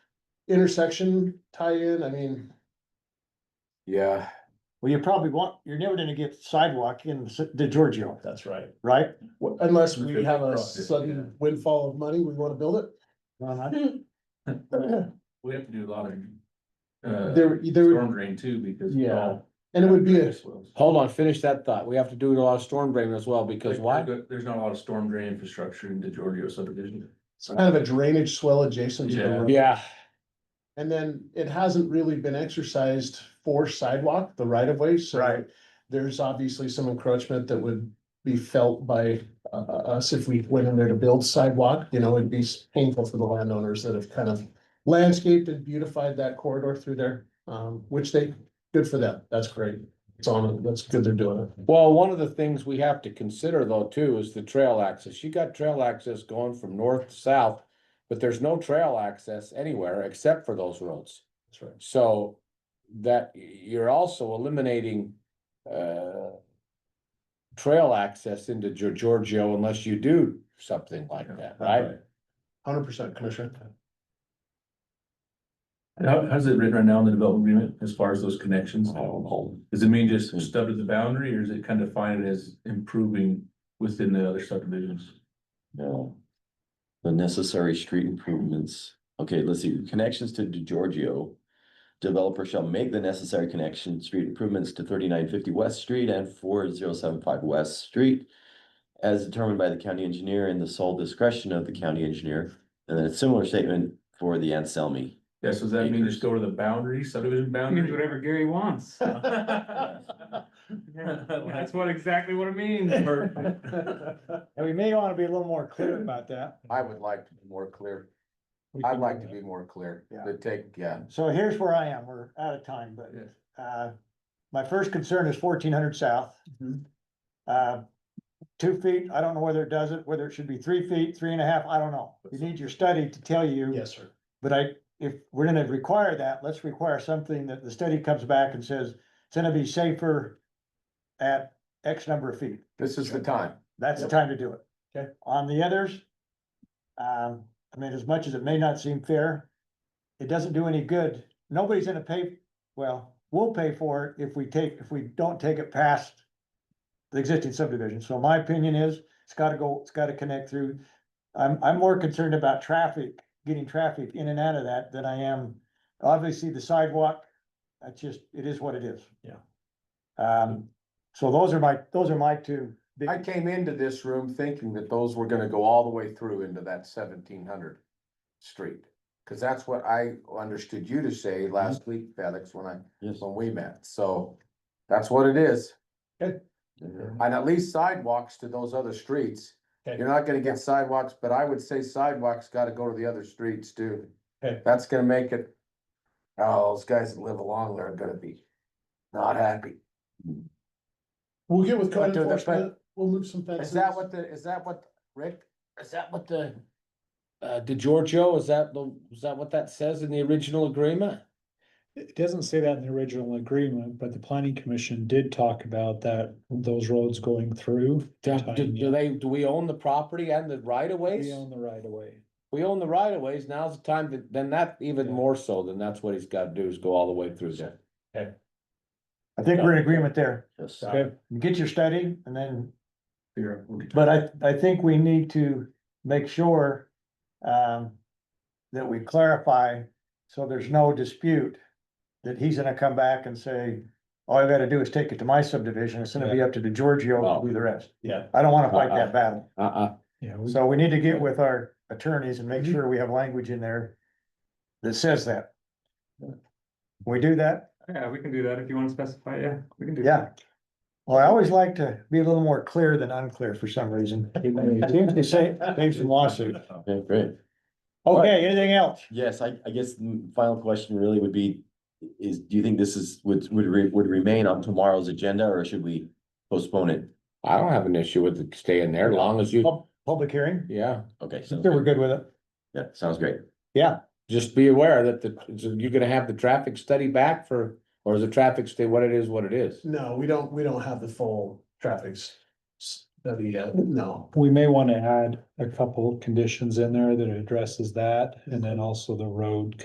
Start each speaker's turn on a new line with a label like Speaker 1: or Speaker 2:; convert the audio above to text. Speaker 1: intersection tie-in, I mean,
Speaker 2: Yeah,
Speaker 3: Well, you probably want, you're never gonna get sidewalk in S- the Giorgio,
Speaker 4: That's right.
Speaker 3: right?
Speaker 1: unless we have a sudden windfall of money, we wanna build it.
Speaker 5: We have to do a lot of. Uh,
Speaker 1: There, there, would-
Speaker 5: storm drain too, because.
Speaker 4: Yeah.
Speaker 1: and it would be a,
Speaker 2: hold on, finish that thought. We have to do a lot of storm drain as well, because why?
Speaker 5: There's not a lot of storm drain infrastructure in the Giorgio subdivision.
Speaker 1: it's kind of a drainage swell adjacent to the
Speaker 5: Yeah.
Speaker 1: road.
Speaker 2: Yeah,
Speaker 1: And then it hasn't really been exercised for sidewalk, the right of way, so.
Speaker 3: Right.
Speaker 1: There's obviously some encroachment that would be felt by uh uh, us if we went in there to build sidewalk, you know, it'd be painful for the landowners that have kind of. Landscaped and beautified that corridor through there, um, which they, good for them, that's great, it's on, them. that's good they're doing it.
Speaker 2: well, one of the things we have to consider though too is the trail access. You got trail access going from north to south. But there's no trail access anywhere except for those roads.
Speaker 1: That's right.
Speaker 2: So that you're also eliminating uh. Trail access into Gior- Giorgio unless you do something like that, right?
Speaker 1: Hundred percent, Commissioner.
Speaker 5: And How, how's it written right now in the development agreement as far as those connections? Does it mean just stub to the boundary or is it kind of defined as improving within the other subdivisions?
Speaker 4: No. The necessary street improvements. Okay, let's see, connections to Giorgio. Developer shall make the necessary connection, street improvements to thirty-nine fifty West Street and four zero seven five West Street. As determined by the county engineer in the sole discretion of the county engineer, and then a similar statement for the Anselmi.
Speaker 5: Yeah, so does that mean just go to the boundary, subdivision boundary?
Speaker 6: Means whatever Gary wants. That's
Speaker 5: That's
Speaker 6: what exactly what it means.
Speaker 3: And we may wanna be a little more clear about that.
Speaker 2: I would like to be more clear. I'd like to be more clear,
Speaker 3: Yeah.
Speaker 2: to take, yeah,
Speaker 3: So here's where I am, we're out of time, but
Speaker 5: Yes.
Speaker 3: uh, my first concern is fourteen hundred south.
Speaker 6: Mm-hmm.
Speaker 1: Mhm.
Speaker 3: Uh, two feet, I don't know whether it does it, whether it should be three feet, three and a half, I don't know. You need your study to tell you.
Speaker 1: Yes, sir.
Speaker 3: But I, if we're gonna require that, let's require something that the study comes back and says, it's gonna be safer at X number of feet.
Speaker 2: this is the time.
Speaker 3: That's the
Speaker 1: Yep.
Speaker 3: time to do it.
Speaker 1: Okay.
Speaker 3: On the others, um, I mean, as much as it may not seem fair, it doesn't do any good. Nobody's gonna pay, well, we'll pay for it if we take, if we don't take it past the existing subdivision. So my opinion is, it's gotta go, it's gotta connect through. I'm, I'm more concerned about traffic, getting traffic in and out of that than I am, obviously, the sidewalk. That's just, it is what it is.
Speaker 1: Yeah.
Speaker 3: Um, so those are my, those are my two. big-
Speaker 2: I came into this room thinking that those were gonna go all the way through into that seventeen hundred street. Cause that's what I understood you to say last week, Felix, when I,
Speaker 4: Yes.
Speaker 2: when we met, so that's what it is. And at least sidewalks to those other streets.
Speaker 1: Okay.
Speaker 2: You're not gonna get sidewalks, but I would say sidewalks gotta go to the other streets too.
Speaker 1: Okay.
Speaker 2: That's gonna make it, oh, those guys that live along there are gonna be not happy.
Speaker 1: We'll get with
Speaker 2: But
Speaker 1: code
Speaker 2: do the- but-
Speaker 1: enforcement, we'll move some fences.
Speaker 2: Is that what the, is that what, Rick? Is that what the? Uh, DeGiorgio, is that the, is that what that says in the original agreement?
Speaker 7: It doesn't say that in the original agreement, but the planning commission did talk about that, those roads going through.
Speaker 2: Do, do- do they, do we own the property and the right of ways?
Speaker 7: We own the right of way.
Speaker 2: We own the right of ways, now's the time, to- then that even
Speaker 7: Yeah.
Speaker 2: more so, then that's what he's gotta do is go all the way through there.
Speaker 3: I think we're in agreement there.
Speaker 4: Yes.
Speaker 7: Okay.
Speaker 3: Get your study and then,
Speaker 5: Here, we'll get-
Speaker 3: but I, I think we need to make sure um, that we clarify, so there's no dispute that he's gonna come back and say, all I gotta do is take it to my subdivision. It's gonna be up to DeGiorgio to do the rest.
Speaker 7: Yeah.
Speaker 3: I don't wanna fight that battle.
Speaker 2: Uh-uh,
Speaker 7: Yeah, we-
Speaker 3: So we need to get with our attorneys and make sure we have language in there that says that. We do that?
Speaker 6: Yeah, we can do that if you want to specify, yeah, we can do.
Speaker 3: Yeah. Well, I always like to be a little more clear than unclear for some reason. It Seems to say, saves some lawsuit.
Speaker 4: Okay, great.
Speaker 3: Okay, anything else?
Speaker 4: Yes, I, I guess the final question really would be, is, do you think this is, would, would, re- would remain on tomorrow's agenda, or should we postpone it?
Speaker 2: I don't have an issue with it staying there, long as you,
Speaker 3: Pub- Public hearing?
Speaker 2: yeah,
Speaker 4: Okay,
Speaker 3: I
Speaker 4: sounds
Speaker 3: think we're
Speaker 4: good.
Speaker 3: good with it.
Speaker 4: Yeah, sounds great.
Speaker 2: just be aware that the, you're gonna have the traffic study back for, or is the traffic stay what it is, what it is?
Speaker 1: No, we don't, we don't have the full traffic s- study yet, no.
Speaker 7: we may want to add a couple conditions in there that addresses that, and then also the road